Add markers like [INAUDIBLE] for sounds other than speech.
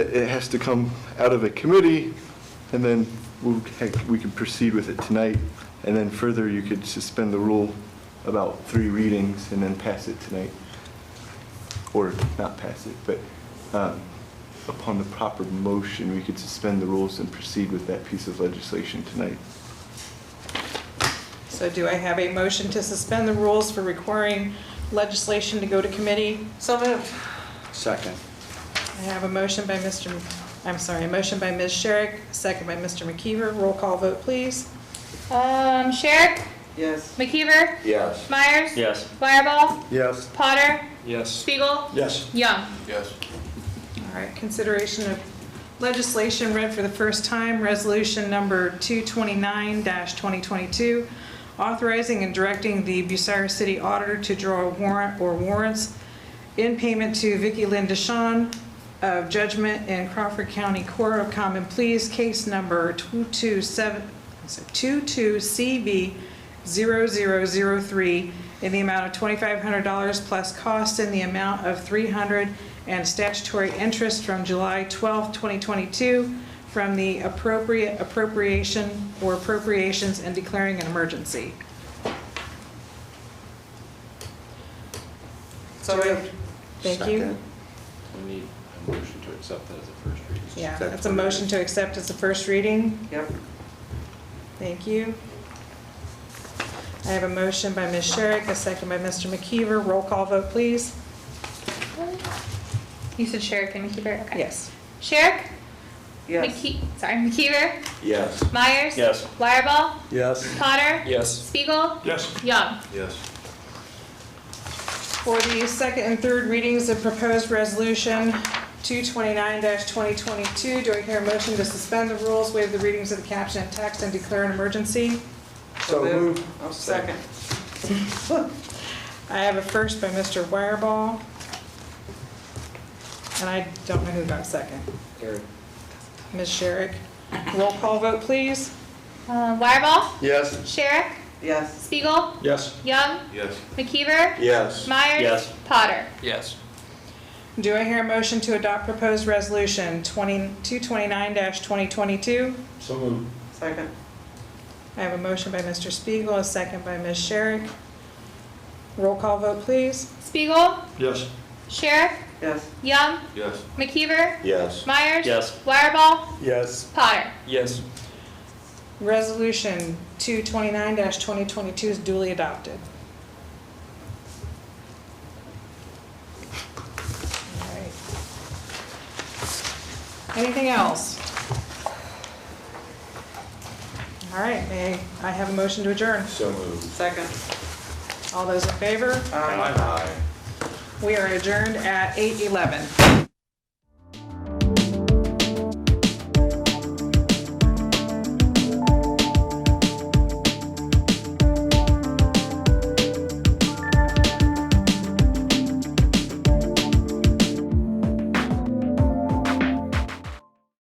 it has to come out of a committee, and then we'll, heck, we could proceed with it tonight, and then further, you could suspend the rule about three readings and then pass it tonight, or not pass it, but um, upon the proper motion, we could suspend the rules and proceed with that piece of legislation tonight. So do I have a motion to suspend the rules for requiring legislation to go to committee? So moved. Second. I have a motion by Mr., M- I'm sorry, a motion by Ms. Sherrick, second by Mr. McKeever. Roll call vote, please. Um, Sherrick, Yes. McKeever, Yes. Myers, Yes. Wireball, Yes. Potter, Yes. Spiegel, Yes. Young. Yes. All right, consideration of legislation read for the first time, resolution number 229-2022, authorizing and directing the Bucyrus City Auditor to draw a warrant or warrants in payment to Vicki Lynn Deshawn of Judgment in Crawford County Court of Common Pleas, case number 227, I'm sorry, 22CB0003, in the amount of $2,500 plus costs in the amount of 300 and statutory interest from July 12, 2022, from the appropriate appropriation or appropriations and declaring an emergency. So moved. Thank you. Second. We need a motion to accept that as a first reading. Yeah, That's that's a what it motion is. to accept as a first reading. Yep. Thank you. I have a motion by Ms. Sherrick, a second by Mr. McKeever. Roll call vote, please. You said Sherrick and McKeever, okay. Yes. Sherrick, Yes. McKe, sorry, McKeever, Yes. Myers. Yes. Wireball, Yes. Potter, Yes. Spiegel, Yes. Young. Yes. For the second and third readings of proposed resolution 229-2022, do I hear a motion to suspend the rules, waive the readings of the caption and text, and declare an emergency? So moved. I'll second. [LAUGHS] I have a first by Mr. Wireball. And I don't know who got second. Eric. Ms. Sherrick. Roll call vote, please. Uh, Wireball, Yes. Sherrick, Yes. Spiegel, Yes. Young, Yes. McKeever, Yes. Myers. Yes. Potter. Yes. Do I hear a motion to adopt proposed resolution 20 229-2022? So moved. Second. I have a motion by Mr. Spiegel, a second by Ms. Sherrick. Roll call vote, please. Spiegel, Yes. Sherrick, Yes. Young, Yes. McKeever, Yes. Myers. Yes. Wireball, Yes. Potter. Yes. Resolution 229-2022 is duly adopted. All right. Anything else? All right, may I have a motion to adjourn? So moved. Second. All those in favor? Aye. Aye. We are adjourned at 8:11.